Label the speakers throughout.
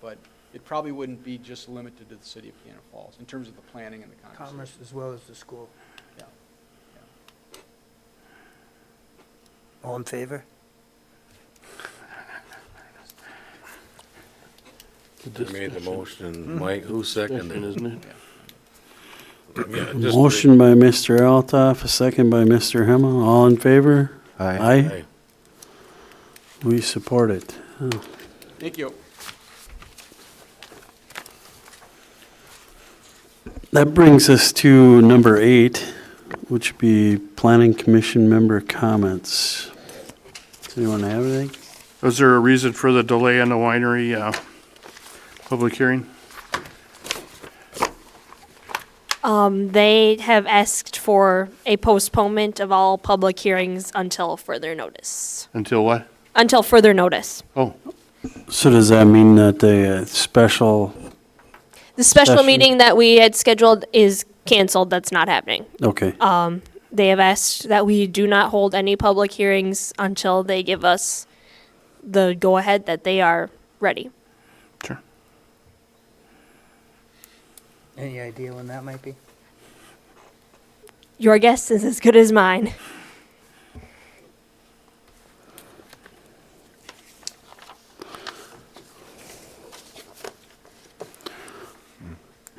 Speaker 1: but it probably wouldn't be just limited to the city of Cannon Falls in terms of the planning and the conversation.
Speaker 2: Commerce as well as the school.
Speaker 1: Yeah.
Speaker 2: All in favor?
Speaker 3: I made the motion, Mike, who seconded it? Yeah, just-
Speaker 4: Motion by Mr. Altoff, a second by Mr. Hema. All in favor?
Speaker 5: Aye.
Speaker 4: Aye.
Speaker 3: Aye.
Speaker 4: We support it. Oh,
Speaker 1: Thank you.
Speaker 4: That brings us to number eight, which would be Planning Commission member comments. Does anyone have anything?
Speaker 6: Was there a reason for the delay in the winery uh, public hearing?
Speaker 7: Um, they have asked for a postponement of all public hearings until further notice.
Speaker 6: Until what?
Speaker 7: Until further notice.
Speaker 6: Oh,
Speaker 4: So does that mean that the uh, special,
Speaker 7: The special
Speaker 4: Special-
Speaker 7: meeting that we had scheduled is canceled. That's not happening.
Speaker 4: okay,
Speaker 7: They have asked that we do not hold any public hearings until they give us the go-ahead that they are ready.
Speaker 6: sure.
Speaker 2: Any idea when that might be?
Speaker 7: Your guess is as good as mine.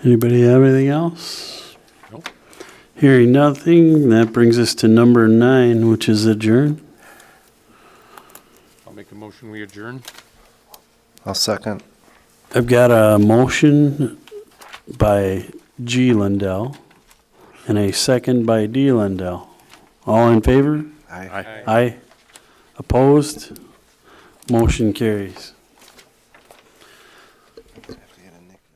Speaker 4: anybody have anything else? Hearing nothing, that brings us to number nine, which is adjourn.
Speaker 8: I'll make a motion, we adjourn.
Speaker 5: I'll second.
Speaker 4: I've got a motion by G. Lindell and a second by D. Lindell. All in favor?
Speaker 5: Aye.
Speaker 4: Aye. Opposed? Motion carries.
Speaker 5: Have to get a nickname.